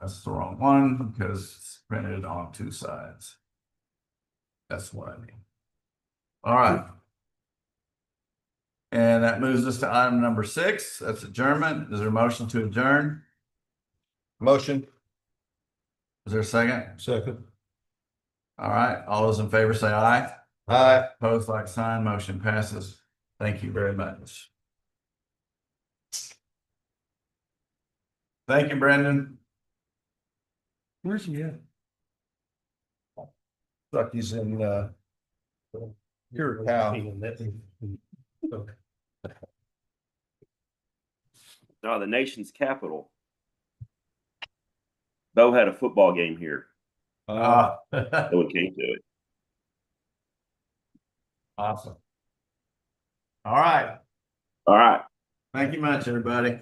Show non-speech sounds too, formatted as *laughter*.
That's the wrong one because it's printed on two sides. That's what I mean. All right. And that moves us to item number six. That's adjournment. Is there a motion to adjourn? Motion. Is there a second? Second. All right. All those in favor say aye. Aye. Opposed, like sign, motion passes. Thank you very much. Thank you, Brendan. Where's he at? Thought he's in, uh. Your No, the nation's capital. Bo had a football game here. Uh, No one came to it. *laughs* awesome. All right. All right. Thank you much, everybody.